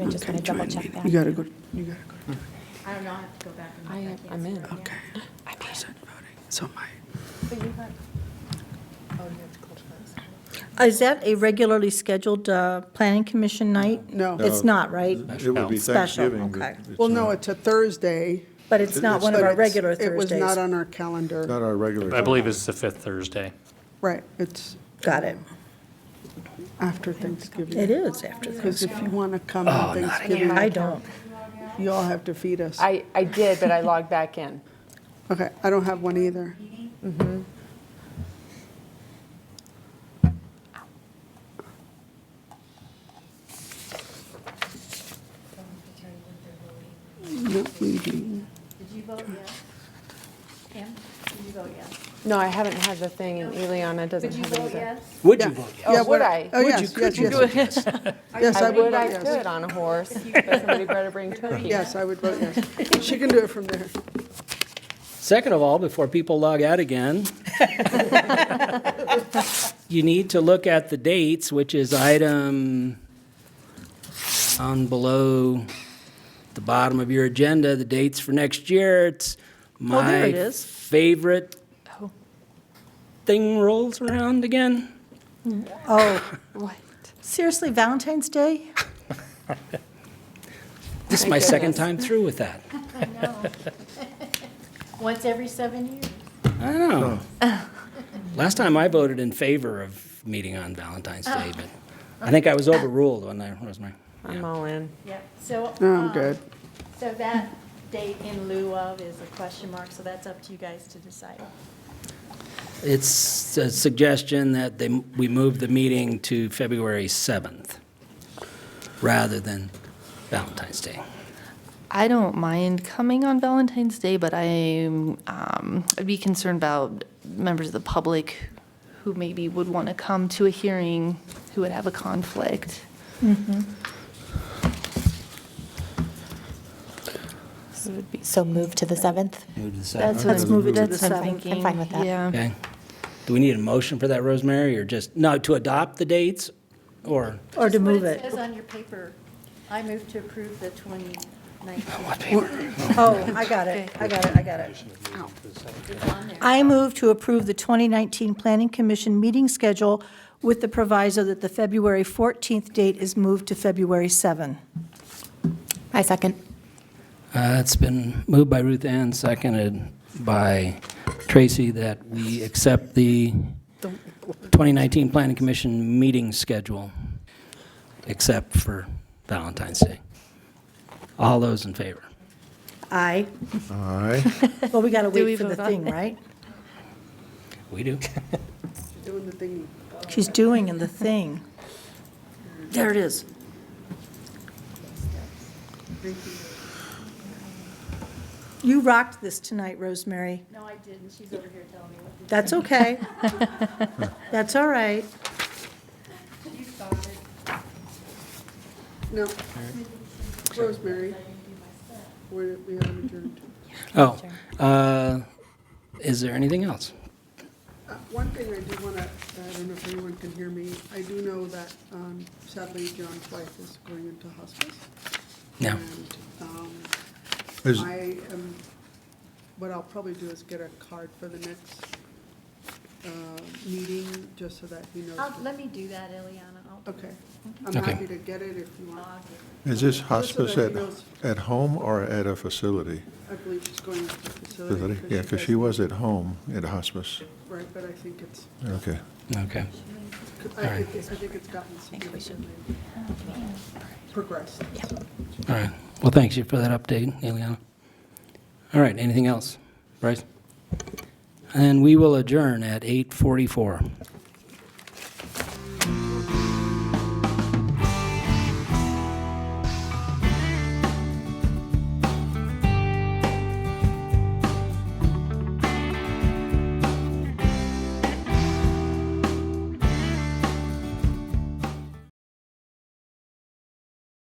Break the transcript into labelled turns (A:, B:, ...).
A: I just want to double check
B: You
A: that.
B: gotta go, you gotta go. to-
C: I don't know, I have to go back and
D: I
C: look.
D: am- I'm in.
C: Yeah.
B: Okay. I present voting. So my,
E: Is that a regularly scheduled uh, planning commission night?
B: No.
E: It's not, right?
F: It would be
E: Special,
F: Thanksgiving. but
E: okay.
F: it's
B: well, no,
F: not-
B: it's a Thursday.
E: But it's not one
B: but
E: of our
B: it's-
E: regular
B: It was not
E: Thursdays.
B: on our calendar.
F: Not our regular.
G: I believe it's the fifth Thursday.
B: Right, it's
E: Got it.
B: after Thanksgiving.
E: It is after
B: Because
E: Thursday.
B: if you want to come on Thanksgiving,
E: I don't.
B: you all have to feed us.
D: I, I did, but I logged back in.
B: Okay, I don't have one either. Not meeting.
C: Did you vote yes? Pam, did you vote yes?
D: No, I haven't had the thing, and Eliana doesn't
C: Did you
D: have it
C: vote
D: either.
C: yes?
H: Would
B: Yeah.
H: you vote?
B: Yeah,
D: Oh, would I?
B: Oh, yes, yes, yes. Yes,
D: I
B: I
D: would,
B: would
D: I
B: vote yes.
D: could on a horse, but somebody better bring turkey.
B: Yes, I would vote yes. She can do it from there.
H: Second of all, before people log out again, you need to look at the dates, which is item on below the bottom of your agenda, the dates for next year. It's
E: Oh, there
H: my
E: it is.
H: favorite thing rolls around again.
E: Oh,
D: What?
E: seriously, Valentine's Day?
H: This is my second time through with that.
C: Once every seven years.
H: I don't know. Last time I voted in favor of meeting on Valentine's
E: Ah.
H: Day, but I think I was overruled when I, Rosemary.
D: I'm all in.
C: Yeah, so.
B: No, Oh, I'm
C: um,
B: good.
C: So that date in lieu of is a question mark, so that's up to you guys to decide.
H: It's a suggestion that they, we move the meeting to February 7th rather than Valentine's Day.
I: I don't mind coming on Valentine's Day, but I'm um, I'd be concerned about members of the public who maybe would want to come to a hearing who would have a conflict.
J: So move to the 7th?
E: That's Let's move it to the
I: That's what I'm
E: 7th.
I: thinking.
J: I'm fine with that.
I: Yeah.
H: Okay? Do we need a motion for that, Rosemary, or just, no, to adopt the dates? Or,
E: Or to
C: Just
E: move
C: What it
E: it?
C: says on your paper, I move to approve the 2019.
E: Oh, I got it, I got it, I got it.
C: It's on there.
E: I move to approve the 2019 Planning Commission meeting schedule with the proviso that the February 14th date is moved to February 7.
J: I second.
H: uh, it's been moved by Ruth Ann, seconded by Tracy, that we accept the 2019 Planning Commission meeting schedule, except for Valentine's Day. All those in favor?
E: Aye.
F: Aye.
E: Well, we got to
I: we
E: wait for the
I: vote on
E: thing,
I: it?
E: right?
H: We do.
B: Doing the thing.
E: She's doing in the thing. There it is. You rocked this tonight, Rosemary.
C: No, I didn't. She's over here telling me what to do.
E: That's okay. That's all right.
C: You started.
B: No. Rosemary, we're- we have adjourned.
H: Oh, uh, is there anything else?
B: Uh, One thing I do want to, I don't know if anyone can hear me, I do know that um, sadly John's wife is going into hospice.
H: No.
B: And um,
F: Is-
B: I am, what I'll probably do is get a card for the next uh, meeting, just so that he knows.
C: I'll-
B: that-
C: Let me do that, Eliana. I'll-
B: Okay. I'm
H: Okay.
B: happy to get it if you want.
F: Is this
B: Just so
F: hospice
B: that
F: at,
B: he knows,
F: at home or at a facility?
B: I believe she's going to the facility.
F: Facility? Yeah, because she was at home at hospice.
B: Right, but I think it's,
F: Okay.
H: Okay.
B: I think I think it's gotten significantly progressed.
H: All right. Well, thanks you for that update, Eliana. All right, anything else? Bryce? And we will adjourn at 8:44.